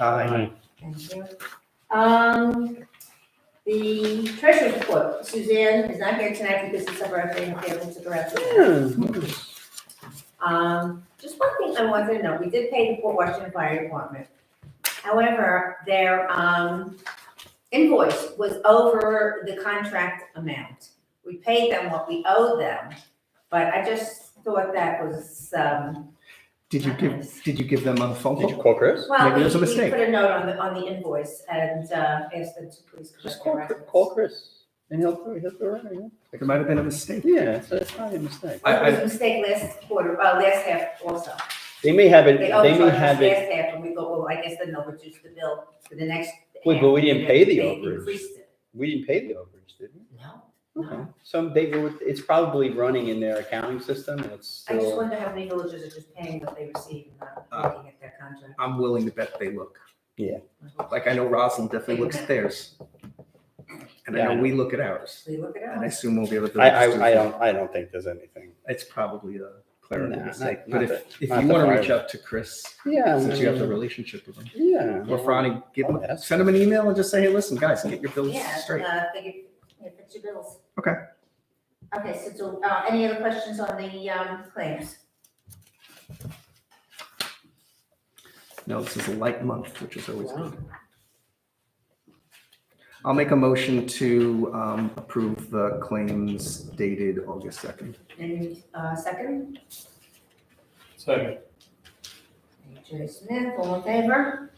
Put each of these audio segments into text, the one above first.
Aye. Thank you. Um, the treasurer's report, Suzanne is not here tonight because it's her birthday and her family took her out to dinner. Um, just one thing I wanted to know, we did pay the Port Washington Fire Department. However, their, um, invoice was over the contract amount. We paid them what we owed them, but I just thought that was, um, Did you not give, nice. did you give them a phone Did you call? call Chris? Well, Maybe we, there's a we mistake. put a note on the, on the invoice and, uh, asked them to please Just correct their records. call, call Chris and he'll, he'll do it right. There might have been a mistake. Yeah, so it's not a mistake. I- It was a mistake last quarter, uh, last half also. They may have it, They they may overcharged us have it, last half and we go, well, I guess then they'll reduce the bill for the next. Wait, but we half. didn't pay the They overage. increased it. we didn't pay the overage, did we? No, Okay. no. So they, were- it's probably running in their accounting system and it's I just still, wonder how many villages are just paying what they receive and Uh, not looking at their contract. I'm willing to bet they look. Yeah. Like I know Rosalind definitely looks at theirs. And I know we look at ours. We look it And I up. assume we'll be able to. I, I, I don't, I don't think there's anything. It's probably a clerical Nah, mistake, not- but not if, the- if not you the want to reach fire. out to Chris, Yeah. since you have the I mean, relationship with him, Yeah. or Franny, give him, Oh, that's- send him an email and just say, hey, listen, guys, get your bills Yeah, straight. uh, figure, yeah, fix your bills. Okay. Okay, so, do- uh, any other questions on the, um, claims? No, this is a light month, which is always good. I'll make a motion to um, approve the claims dated August 2nd. And, uh, second, Second. Jerry Smith, all in favor?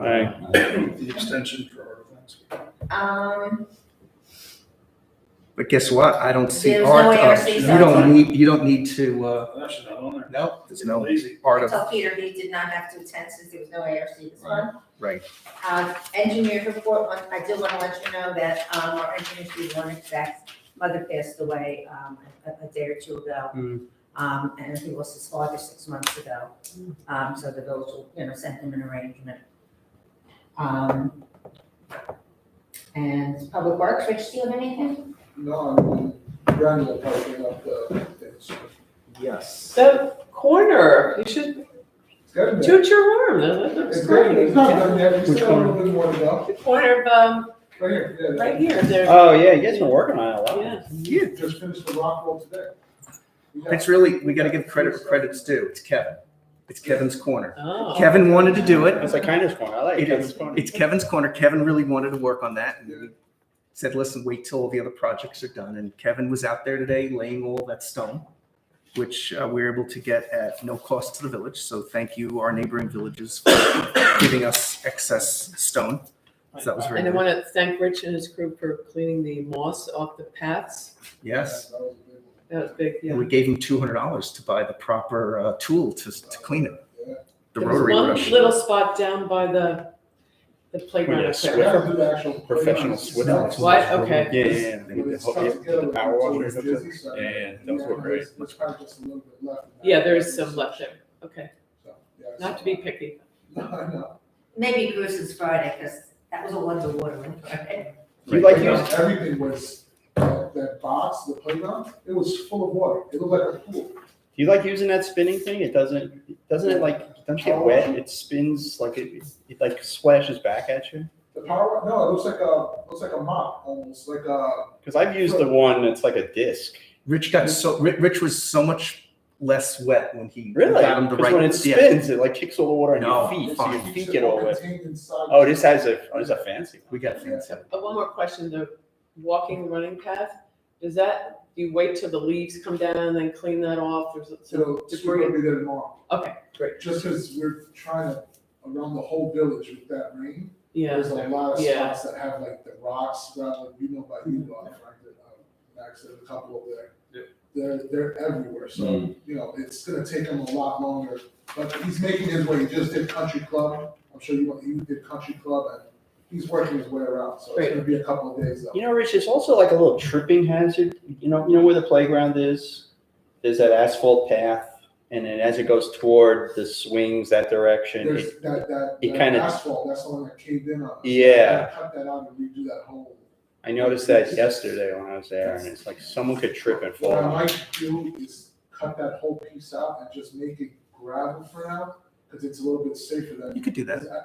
Aye. The extension for our events. Um, But guess what? I don't see There's art no of, ARC you outside. don't need, you don't need to, uh, That's not on there. no, there's no Lazy. art of, so Peter, he did not have to attend since there was no ARC this month. right. Um, engineer's report, one- I do want to let you know that, um, our engineer, Steve Warnick's mother passed away, um, a, a day or two ago. Hmm. Um, and he lost his father six months ago. Um, so the village will, you know, send him an arrangement. Um, and Public Works, Rich, do you have anything? No, I'm running the parking up the, it's Yes. That corner, you should good. toot your horn, that looks It's good, great. it's not done yet, we Which still have a one? little bit more to go. The corner of, um, Right here, yeah, right here, there, Oh, yeah, you guys been working on it a lot. yeah. Yeah, Just finished the rock wall today. We got- it's really, we gotta give credit where credit's due. It's Kevin. It's Kevin's corner. Oh. Kevin wanted to do it. It's like Kindness Corner, I like It Kindness is. Corner. It's Kevin's corner. Kevin really wanted to work on that. and we Said, listen, wait till all the other projects are done. And Kevin was out there today laying all that stone, which uh, we were able to get at no cost to the village. So thank you, our neighboring villages, for giving us excess stone. So that was very And I good. want to thank Rich and his crew for cleaning the moss off the paths. Yes. That was a good one. That was big, yeah. And we gave him $200 to buy the proper uh, tool to, to clean it. Yeah. The There was rotary one brush. Little spot down by the, the playground. Yeah, up We there. Swiffer? have to do the actual. Professional playground itself. Swiffer. What? Okay. Yeah, yeah, yeah. But it's The whole- stuck yeah, together the with power all washer those up there. busy stuff. Yeah, those were great. Let's probably just a little bit left. Yeah, there is some left there. Okay, So, yeah, not so- to be picky. No, no. Maybe Bruce's Friday, because that was all underwater on Friday. You like But no, using, Everything was, that that box, the playground, it was full of water, it looked like a pool. you like using that spinning thing? It doesn't, doesn't it like, doesn't it get wet? It spins like it, it like splashes back at you? The power, no, it looks like a, looks like a mop, almost, like a, Because I've used the one that's like a disc. Rich got so, Ri- Rich was so much less wet when he Really? got him the right. Because when it yeah. spins, it like kicks all the water on No, your feet, so your fine. feet get all wet. Contained inside. Oh, this has a, oh, this is a fancy We one. got fancy. Uh, One more question, the walking, running path, does that, do you wait till the leaves come down and then clean that off? There's some So, it's debris. gonna be there tomorrow, Okay, great. just because we're trying to, around the whole village with that rain. Yeah, There's a lot of Yeah. Mm-hmm. spots that have like the rocks, rather, you know, by you, uh, like, the, uh, Max, there's a couple over there. They're, they're everywhere, Mm. so, you know, it's gonna take him a lot longer, but he's making his way, he just did country club, I'm sure you, you did country club, and he's working his way around, so it's Great. gonna be a couple of days though. You know, Rich, it's also like a little tripping hazard. You know, you know where the playground is? There's that asphalt path, and then as it goes toward the swings that direction, it- There's that, that, it that kinda- asphalt, that's the one that caved in on. us. Yeah. Cut that out and redo that whole. I noticed that yesterday when I was there, and it's like someone could trip and fall. What I on it. might do is cut that whole piece out and just make it gravel for now, because it's a little bit safer than. You could do that. I-